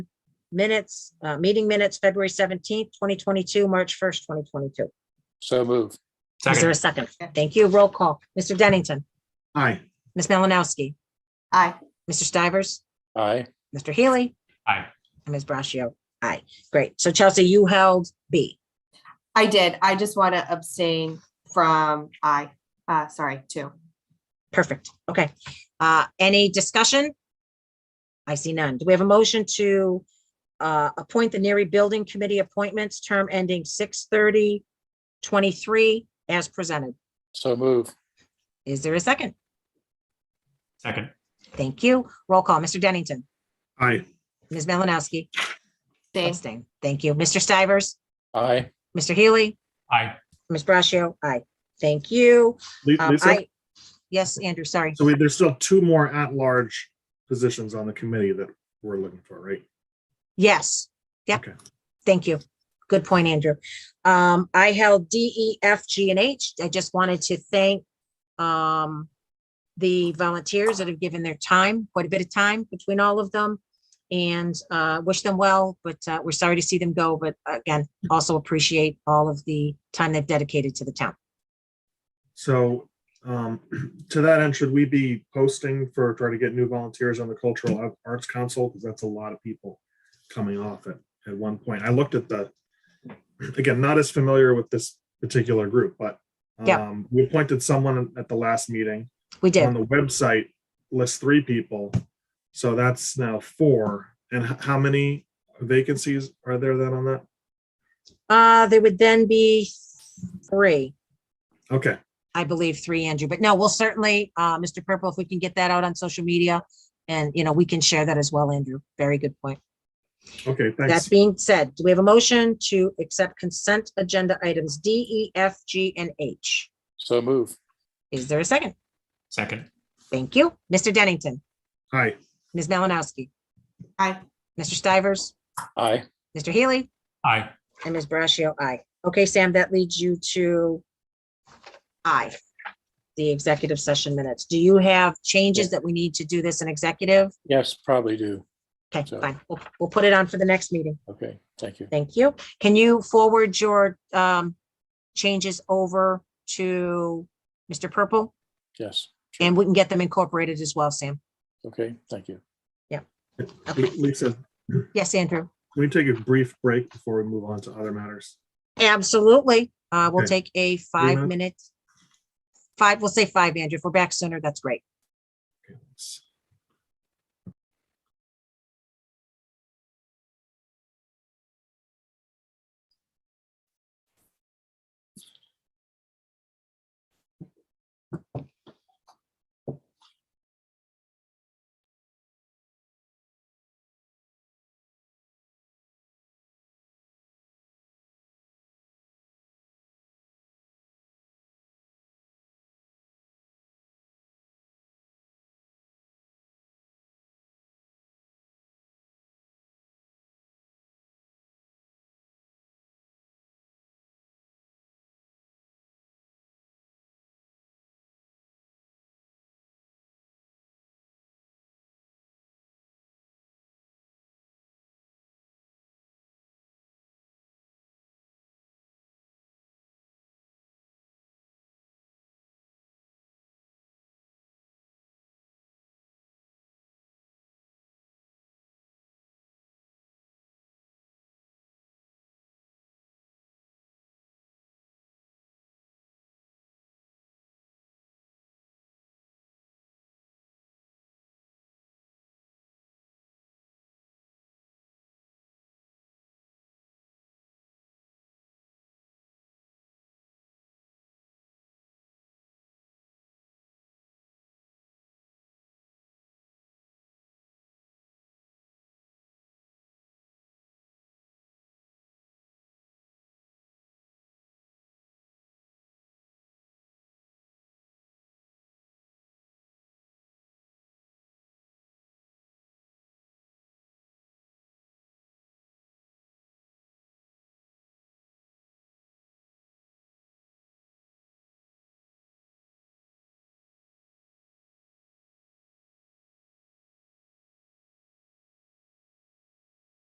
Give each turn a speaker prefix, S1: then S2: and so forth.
S1: minutes, uh, meeting minutes, February seventeenth, twenty twenty-two, March first, twenty twenty-two.
S2: So move.
S1: Is there a
S3: Second,
S1: second? Thank you. Roll call. Mr. Dennington,
S4: aye,
S1: Ms. Melanowski,
S5: aye,
S1: Mr. Stivers,
S2: Aye.
S1: Mr. Healy,
S3: aye.
S1: and Ms. Brascio. Aye. Great. So Chelsea, you held B.
S5: I did. I just want to abstain from I, uh, sorry, two.
S1: Perfect. Okay. Uh, any discussion? I see none. Do we have a motion to uh, appoint the Neary Building Committee appointments, term ending 6:30, 23 as presented?
S2: So move.
S1: Is there a second?
S3: Second,
S1: Thank you. Roll call. Mr. Dennington,
S4: aye,
S1: Ms. Melanowski.
S5: Abstain.
S1: Abstain. Thank you. Mr. Stivers,
S2: Aye.
S1: Mr. Healy,
S3: aye.
S1: Ms. Brascio. Aye. Thank you.
S4: Li-
S1: Um,
S4: Lisa,
S1: I- Yes, Andrew, sorry.
S4: so we- there's still two more at-large positions on the committee that we're looking for, right?
S1: Yes. Yep.
S4: Okay.
S1: Thank you. Good point, Andrew. Um, I held D, E, F, G, and H. I just wanted to thank um the volunteers that have given their time, quite a bit of time between all of them. And uh wish them well, but uh we're sorry to see them go, but again, also appreciate all of the time they've dedicated to the town.
S4: So um, to that end, should we be posting for, try to get new volunteers on the Cultural Arts Council? Because that's a lot of people coming off at, at one point. I looked at the, again, not as familiar with this particular group, but
S1: Yeah.
S4: um, we appointed someone at the last meeting.
S1: We did.
S4: On the website, lists three people. So that's now four. And h- how many vacancies are there then on that?
S1: Uh, there would then be three.
S4: Okay,
S1: I believe three, Andrew, but no, we'll certainly, uh, Mr. Purple, if we can get that out on social media. And, you know, we can share that as well, Andrew. Very good point.
S4: okay,
S1: That
S4: thanks.
S1: being said, do we have a motion to accept consent agenda items D, E, F, G, and H?
S2: So move.
S1: Is there a second?
S3: Second,
S1: Thank you. Mr. Dennington,
S4: Hi,
S1: Ms. Melanowski,
S5: Aye,
S1: Mr. Stivers,
S2: Aye.
S1: Mr. Healy,
S3: aye.
S1: and Ms. Brascio, aye. Okay, Sam, that leads you to I, the executive session minutes. Do you have changes that we need to do this in executive?
S2: Yes, probably do.
S1: Okay,
S2: So-
S1: fine. We'll, we'll put it on for the next meeting.
S2: Okay, thank you.
S1: Thank you. Can you forward your um changes over to Mr. Purple?
S2: Yes.
S1: And we can get them incorporated as well, Sam.
S2: Okay, thank you.
S1: Okay.
S4: Lisa.
S1: Yes, Andrew.
S4: Can we take a brief break before we move on to other matters?
S1: Absolutely. Uh, we'll
S4: Okay.
S1: take a five
S4: minutes?
S1: minute. Five, we'll say five, Andrew. If we're back sooner, that's great.
S4: Okay, let's-